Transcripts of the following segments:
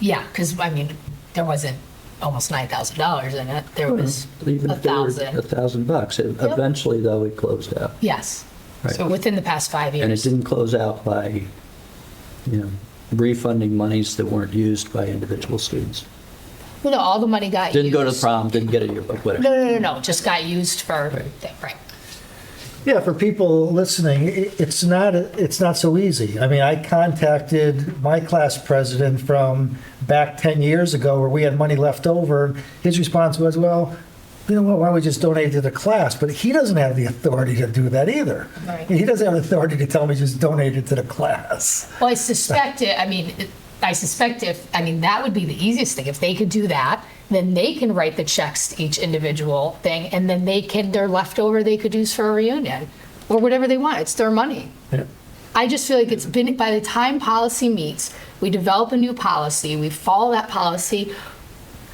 Yeah, because, I mean, there wasn't almost $9,000 in it. There was Even a if they were A 1,000. thousand bucks. It- Yep. Eventually, though, it closed out. Yes. Right. So within the past five And it years. didn't close out by, you know, refunding monies that weren't used by individual students. Well, no, all the money got used. Didn't go to the prom, didn't get a yearbook, No, whatever. no, no, no, just got used for, right. Yeah, for people listening, i- it's not, it's not so easy. I mean, I contacted my class president from back 10 years ago where we had money left over. His response was, well, you know what, why don't we just donate it to the class? But he doesn't have the authority to do that either. Right. He doesn't have authority to tell me just donate it to the class. Well, I suspect it, I mean, it- I suspect if, I mean, that would be the easiest thing. If they could do that, then they can write the checks to each individual thing, and then they can, their leftover, they could use for a reunion, or whatever they want. It's their money. I just feel like it's been, by the time policy meets, we develop a new policy, we follow that policy.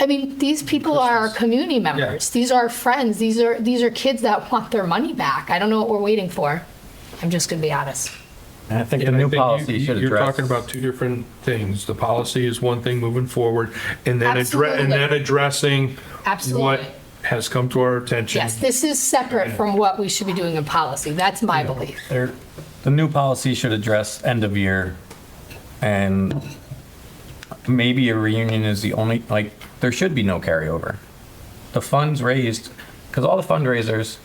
I mean, these people are our community members. These are our friends. These are, these are kids that want their money back. I don't know what we're waiting for. I'm just gonna be honest. And I think Yeah, and the I new think you- policy you- should You're address. talking about two different things. The policy is one thing moving forward, and then address, Absolutely. and then addressing what Absolutely. has come to our attention. Yes, this is separate from what we should be doing in policy. That's my belief. There- The new policy should address end of year and maybe a reunion is the only, like, there should be no carryover. The funds raised, because all the fundraisers,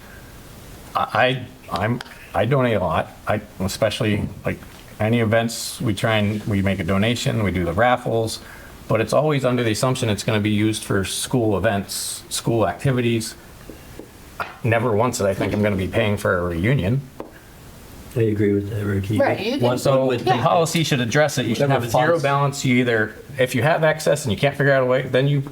I, I- I'm, I donate a lot. I, especially like any events, we try and, we make a donation, we do the raffles, but it's always under the assumption it's going to be used for school events, school activities. Never once did I think I'm going to be paying for a reunion. I agree with that, Ricky. Right, you One- can- one So would the think- policy should address it. You should have a zero Funds. balance. You either, if you have excess and you can't figure out a way, then you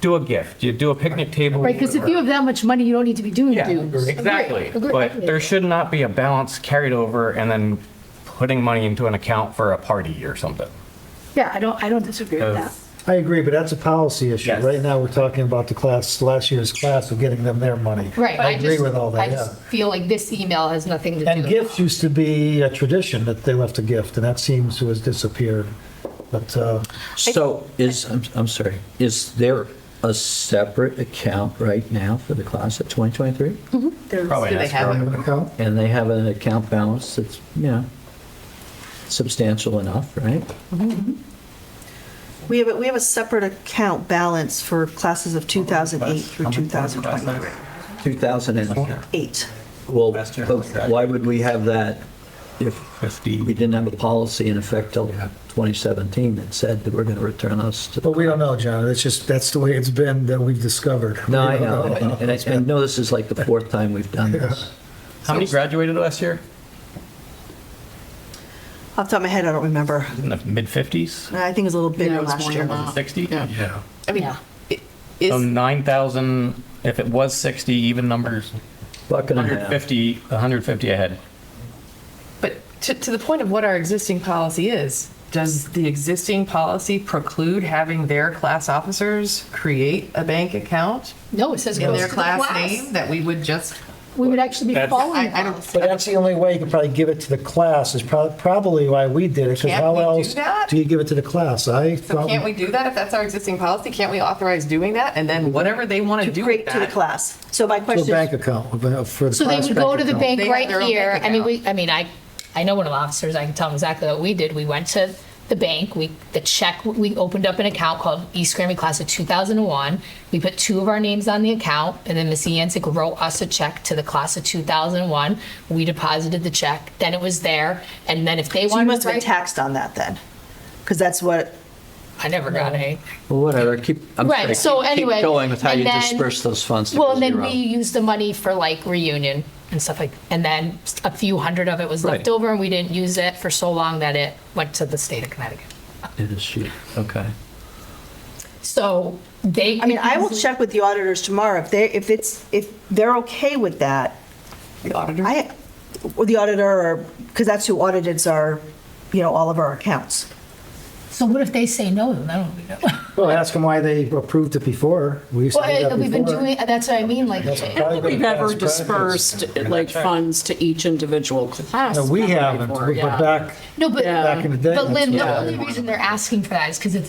do a gift. You do a picnic table. Right, because if you have that much money, you don't need to be doing Yeah, dues. exactly. Agree, agree. But there should not be a balance carried over and then putting money into an account for a party or something. Yeah, I don't, I don't disagree with that. I agree, but that's a policy issue. Yes. Right now, we're talking about the class, last year's class, of getting them their money. Right. I agree just- with all I that, yeah. just feel like this email has nothing to do. And gifts used to be a tradition that they left a gift, and that seems to have disappeared. But uh, So is, I'm, I'm sorry, is there a separate account right now for the class of 2023? Hmm. Probably an escrow. an account? And they have an account balance that's, you know, substantial enough, right? We have, a- we have a separate account balance for classes of 2008 through How much was the class last year? 2028. 2,000 and, well, Last year. but why would we have that if we Fifty. didn't have a policy in effect till 2017 that said that we're going to return us to But we don't know, John. It's just, that's the way it's been that we've discovered. No, We I don't know, and and I- I know this is like the fourth time we've done this. How many graduated last year? Off the top of my head, I don't remember. In the mid fifties, I think it was a little bigger it was last more year. than that. sixty? Yeah. I mean, Yeah. i- So is, nine thousand, if it was sixty, even numbers, Buck and a hundred half. fifty, hundred fifty ahead. but to, to the point of what our existing policy is, does the existing policy preclude having their class officers create a bank account No, it says in goes their to the class name that we would just, We would actually be That's- following. I, I don't. But that's the only way you could probably give it to the class is prob- probably why we did it. 'cause Can't how we do else that? Do you give it to the class? I So thought. can't we do that if that's our existing policy? Can't we authorize doing that? And then whatever they want to do with Great to the that. class. So my To a question bank is, account, uh, for the So they class would go bank to the account. bank They have right their own here. bank I mean, we, account. I mean, I, I know one of the officers, I can tell them exactly what we did. We went to the bank, we, the check, we opened up an account called East Grammy Class of 2001. We put two of our names on the account and then Miss Yancic wrote us a check to the class of 2001. We deposited the check, then it was there. And then if they so you wanted must to have been write, taxed on that then? Because that's what, I never got any. Well, whatever, keep, I'm Right, sorry, keep so anyway, keep going with how and you then- disperse those funds. to Well, and then zero. we used the money for like reunion and stuff like, and then a few hundred of it was left over and we didn't use it for so long that it went to the state of Connecticut. It is shoot, okay. So they. I mean, I will check with the auditors tomorrow. If they, if it's, if they're okay with that, The auditor? I, or the auditor, or, because that's who audits our, you know, all of our accounts. So what if they say no? Then I don't know. Well, ask them why they approved it before. We used to do Well, uh, that we've been before. doing, that's what I mean, like, Probably been We've past ever practice. dispersed like, like funds to each individual class. No, we haven't, before, but yeah. back, no, but, back in the day. but Lynn, that's the what only happened. reason they're asking for that is because it's